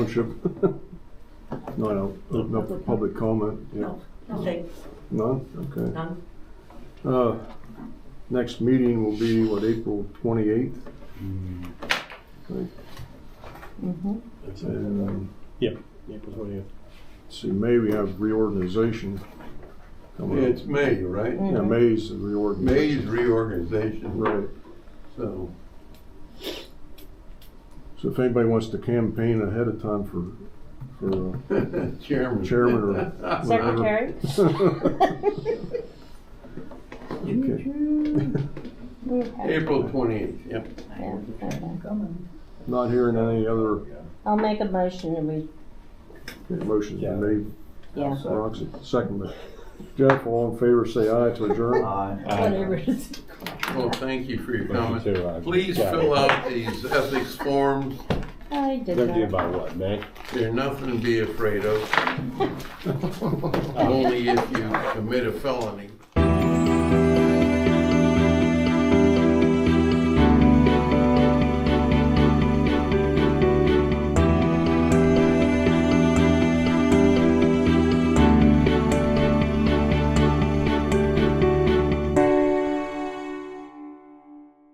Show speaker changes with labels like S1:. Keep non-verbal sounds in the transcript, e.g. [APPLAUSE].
S1: Township. No, I don't, no public comment, yeah,
S2: No, nothing,
S1: none, okay.
S2: none.
S1: Uh, Next meeting will be, what, April 28th? Right,
S3: That's it.
S1: And um,
S3: April 20th.
S1: see, May we have reorganization coming up.
S4: It's May, right?
S1: Yeah, May's the reorganization.
S4: May's reorganization,
S1: Right,
S4: so [LAUGHS]
S1: so if anybody wants to campaign ahead of time for, for uh,
S4: chairman.
S1: chairman or
S4: [LAUGHS]
S1: whatever.
S5: Secretary?
S1: [LAUGHS] uh,
S5: Okay.
S4: April twenty-eighth, yep.
S5: Yeah, okay.
S1: Not hearing any other
S5: I'll make a motion to we,
S1: okay, motions
S3: Yeah.
S1: been made.
S5: yeah,
S1: Roxy, second. by Jeff, all in favor, say aye to adjourn.
S5: whatever it is.
S4: Well, thank you for your
S3: Thank
S4: comments.
S3: you too, Roger.
S4: Please
S3: Yeah.
S4: fill out these ethics forms.
S5: I did
S3: Gonna do
S5: that.
S3: about what, May?
S4: They're nothing to be afraid of, only if you commit a felony.